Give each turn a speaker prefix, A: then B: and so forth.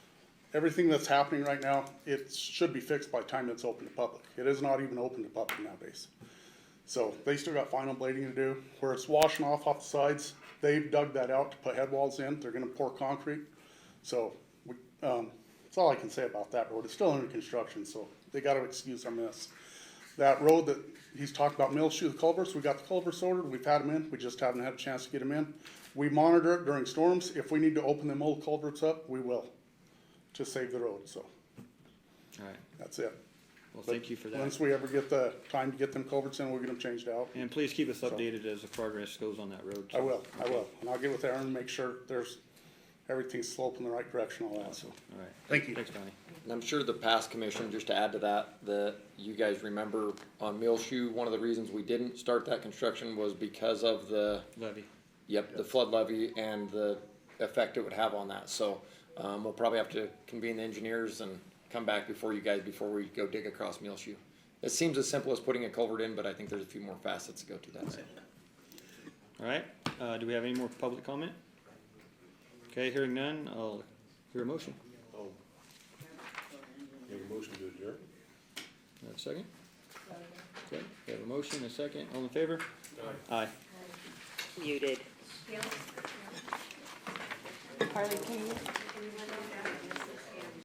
A: everything that's happening right now, it should be fixed by the time it's open to public. It is not even open to public nowadays. So they still got final blading to do. Where it's washing off off the sides, they've dug that out to put head walls in. They're gonna pour concrete. So, we, um, that's all I can say about that road. It's still under construction, so they gotta excuse our mess. That road that he's talked about, Mill Shoe, the culverts, we got the culverts ordered, we've had them in, we just haven't had a chance to get them in. We monitor it during storms. If we need to open them old culverts up, we will, to save the road, so
B: All right,
A: that's it.
B: well, thank you for that.
A: Once we ever get the time to get them culverts in, we'll get them changed out.
B: And please keep us updated as the progress goes on that road.
A: I will, I will, and I'll get with Aaron and make sure there's, everything's sloping the right direction, all that, so.
B: All right.
A: Thank you.
B: Thanks, Donnie.
C: And I'm sure the past commission, just to add to that, that you guys remember on Millshoe, one of the reasons we didn't start that construction was because of the,
B: Levy.
C: yep, the flood levy and the effect it would have on that. So, um, we'll probably have to convene the engineers and come back before you guys, before we go dig across Millshoe. It seems as simple as putting a culvert in, but I think there's a few more facets to go to that.
B: All right, uh, do we have any more public comment? Okay, hearing none, I'll hear a motion.
D: Oh. Make a motion to adjourn?
B: Do I have a second? Okay, we have a motion, and a second, all in favor? Aye. Aye.
E: muted.
F: Harley, can you?